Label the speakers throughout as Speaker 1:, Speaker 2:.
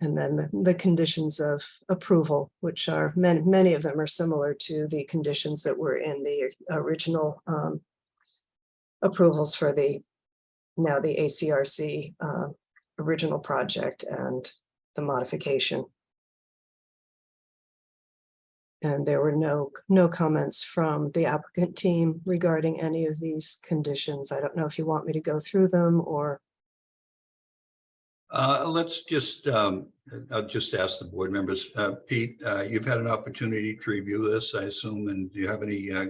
Speaker 1: And then the, the conditions of approval, which are many, many of them are similar to the conditions that were in the original um, approvals for the, now the ACRC uh, original project and the modification. And there were no, no comments from the applicant team regarding any of these conditions. I don't know if you want me to go through them or,
Speaker 2: Uh, let's just, um, I'll just ask the board members. Uh, Pete, uh, you've had an opportunity to review this, I assume, and do you have any, uh,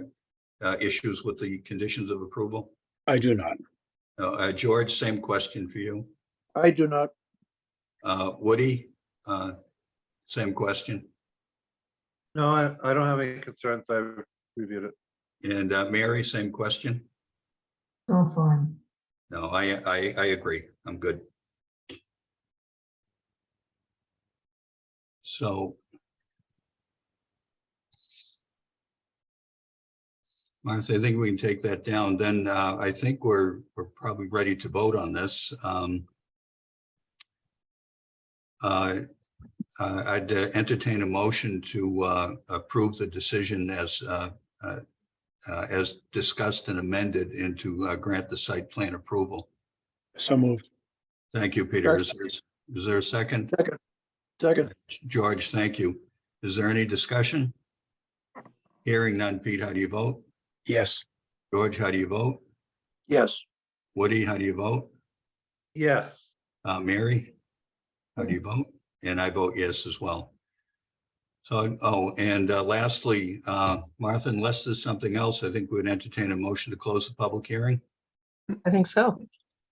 Speaker 2: uh, issues with the conditions of approval?
Speaker 3: I do not.
Speaker 2: Uh, Uh, George, same question for you.
Speaker 3: I do not.
Speaker 2: Uh, Woody, uh, same question.
Speaker 4: No, I, I don't have any concerns. I've reviewed it.
Speaker 2: And, uh, Mary, same question?
Speaker 5: all Oh, fine.
Speaker 2: No, I, I, I agree. I'm good. So. Martha, I think we can take that down. Then uh, I think we're, we're probably ready to vote on this. Um, uh, uh, I'd uh, entertain a motion to uh, approve the decision as uh, uh, uh, as discussed and amended and to uh, grant the site plan approval.
Speaker 3: So moved.
Speaker 2: Thank you, Peter. Is there- is there a second?
Speaker 3: Second.
Speaker 2: George, thank you. Is there any discussion? Hearing none. Pete, how do you vote?
Speaker 3: Yes.
Speaker 2: George, how do you vote?
Speaker 3: Yes.
Speaker 2: Woody, how do you vote?
Speaker 4: Yes,
Speaker 2: Uh, Mary? How do you vote? And I vote yes as well. So, oh, and uh, lastly, uh, Martha, unless there's something else, I think we'd entertain a motion to close the public hearing.
Speaker 1: I think so.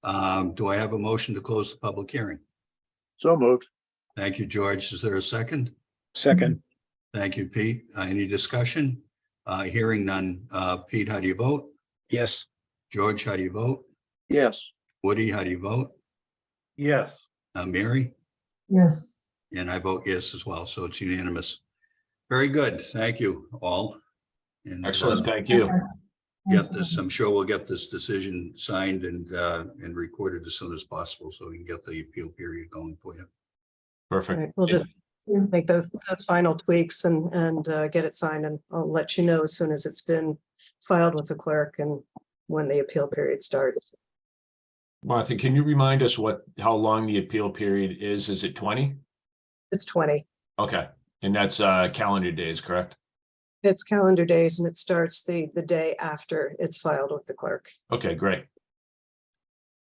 Speaker 2: Um, do I have a motion to close the public hearing?
Speaker 3: So moved.
Speaker 2: Thank you, George. Is there a second?
Speaker 3: Second.
Speaker 2: Thank you, Pete. Uh, Any discussion? Uh, Hearing none. Uh, Pete, how do you vote?
Speaker 3: Yes.
Speaker 2: George, how do you vote?
Speaker 3: Yes.
Speaker 2: Woody, how do you vote?
Speaker 4: yes.
Speaker 2: Uh, Mary?
Speaker 5: Yes,
Speaker 2: And I vote yes as well, so it's unanimous. Very good. Thank you all. And, uh,
Speaker 6: Excellent, thank you.
Speaker 2: Get this, I'm sure we'll get this decision signed and, uh, and recorded as soon as possible, so we can get the appeal period going for you.
Speaker 1: All right,
Speaker 6: Perfect.
Speaker 1: We'll just make those, those final tweaks and, and uh, get it signed and I'll let you know as soon as it's been filed with the clerk and when the appeal period starts.
Speaker 6: Martha, can you remind us what, how long the appeal period is? Is it twenty?
Speaker 1: It's twenty.
Speaker 6: Okay, and that's uh calendar days, correct?
Speaker 1: It's calendar days and it starts the, the day after it's filed with the clerk.
Speaker 6: Okay, great.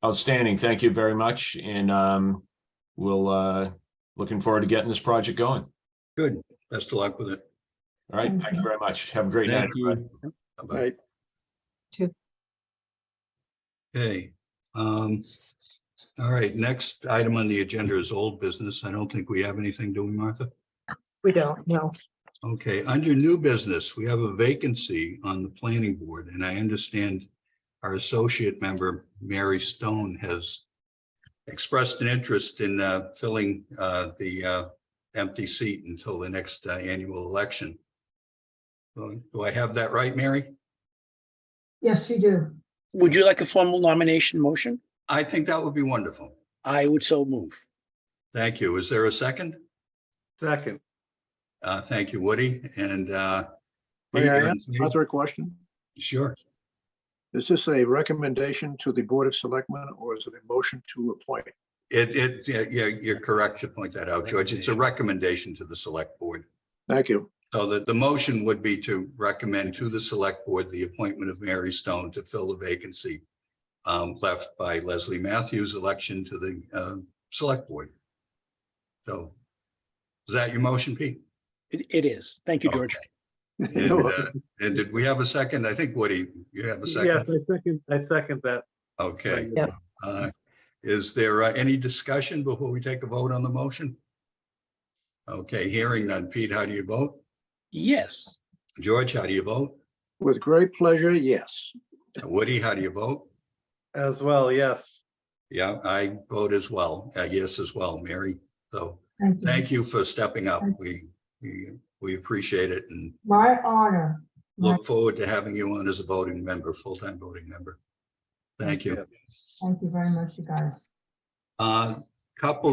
Speaker 6: Outstanding, thank you very much, and um we'll uh looking forward to getting this project going.
Speaker 2: Good. Best of luck with it.
Speaker 6: All right, thank you very much. Have a great night.
Speaker 2: Thank
Speaker 6: everybody.
Speaker 2: Bye-bye.
Speaker 3: Right.
Speaker 2: Okay. um, All right, next item on the agenda is old business. I don't think we have anything, do we, Martha?
Speaker 1: We don't know.
Speaker 2: Okay, under new business, we have a vacancy on the planning board, and I understand our associate member, Mary Stone, has expressed an interest in uh, filling uh, the uh, empty seat until the next uh, annual election. So, Do I have that right, Mary?
Speaker 5: yes, you do.
Speaker 3: Would you like a formal nomination motion?
Speaker 2: I think that would be wonderful.
Speaker 3: I would so move.
Speaker 2: Thank you. Is there a second?
Speaker 4: Second,
Speaker 2: Uh, Thank you, Woody, and uh,
Speaker 7: May I
Speaker 2: Pete,
Speaker 7: ask
Speaker 2: you're on-
Speaker 7: another question?
Speaker 2: Sure.
Speaker 7: Is this a recommendation to the Board of Selectmen or is it a motion to appoint?
Speaker 2: It, it, yeah, yeah, you're correct to point that out, George. It's a recommendation to the select board.
Speaker 7: Thank you.
Speaker 2: So the, the motion would be to recommend to the select board the appointment of Mary Stone to fill the vacancy um, left by Leslie Matthews' election to the uh, select board. So is that your motion, Pete?
Speaker 3: It, it is. Thank you, George.
Speaker 2: And, uh, and did we have a second? I think, Woody, you have a
Speaker 4: yes,
Speaker 2: second?
Speaker 4: I second, I second that.
Speaker 2: Okay.
Speaker 1: Yeah.
Speaker 2: Uh, Is there uh, any discussion before we take a vote on the motion? Okay, hearing none. Pete, how do you vote?
Speaker 3: Yes.
Speaker 2: George, how do you vote?
Speaker 7: With great pleasure, yes.
Speaker 2: Woody, how do you vote?
Speaker 4: As well, yes.
Speaker 2: Yeah, I vote as well. Uh, Yes, as well, Mary. So
Speaker 5: Thank you.
Speaker 2: thank you for stepping up. We, we we appreciate it and
Speaker 5: My honor. My-
Speaker 2: look forward to having you on as a voting member, full-time voting member. Thank you.
Speaker 5: Thank you very much, you guys.
Speaker 2: Uh, Couple